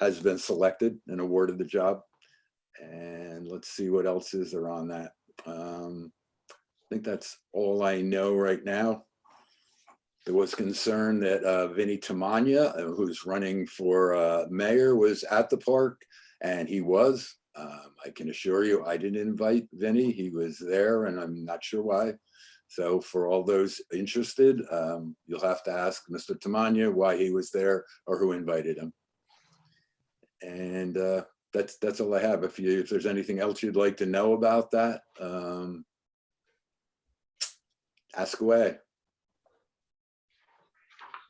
has been selected and awarded the job. And let's see what else is there on that. Um, I think that's all I know right now. There was concern that uh, Vinnie Tamanya, uh, who's running for uh, mayor, was at the park, and he was. Um, I can assure you, I didn't invite Vinnie. He was there, and I'm not sure why. So for all those interested, um, you'll have to ask Mr. Tamanya why he was there or who invited him. And uh, that's, that's all I have. If you, if there's anything else you'd like to know about that, um, ask away.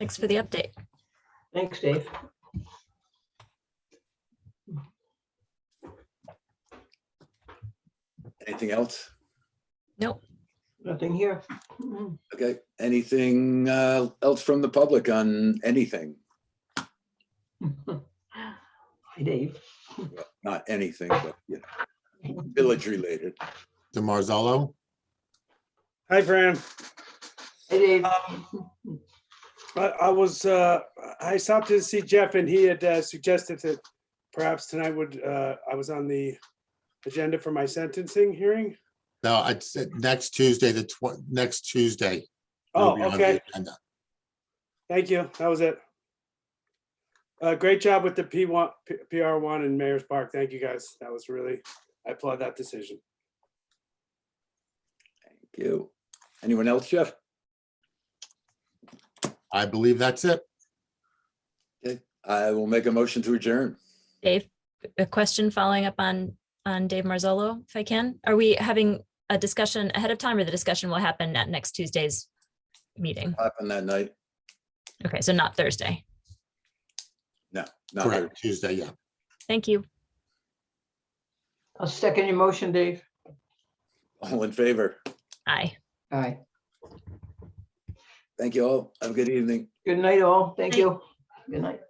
Thanks for the update. Thanks, Dave. Anything else? Nothing here. Mm, Okay, anything uh, else from the public on anything? Hi, Dave. Not anything, but you know, village related. DeMarzallo, Hi, Fran. Hey, Dave. Um, I, I was, uh, I stopped to see Jeff and he had uh, suggested that perhaps tonight would, uh, I was on the agenda for my sentencing hearing. no, I'd said next Tuesday, the tw- next Tuesday. it'll Oh, be on the okay. agenda. Thank you. That was it. Uh, great job with the P one, PR one and Mayor's Park. Thank you, guys. That was really, I applaud that decision. Thank you. Anyone else, Jeff? I believe that's it. I will make a motion to adjourn. Dave, a question following up on, on Dave Marzolo, if I can. Are we having a discussion ahead of time or the discussion will happen at next Tuesday's meeting? Happened that night? Okay, so not Thursday. Not there. Correct, Tuesday, yeah. Thank you. I'll second your motion, Dave. All in favor? Aye. Aye. Thank you all. Have a good evening. Good night, all. Thank Night. you. Good night.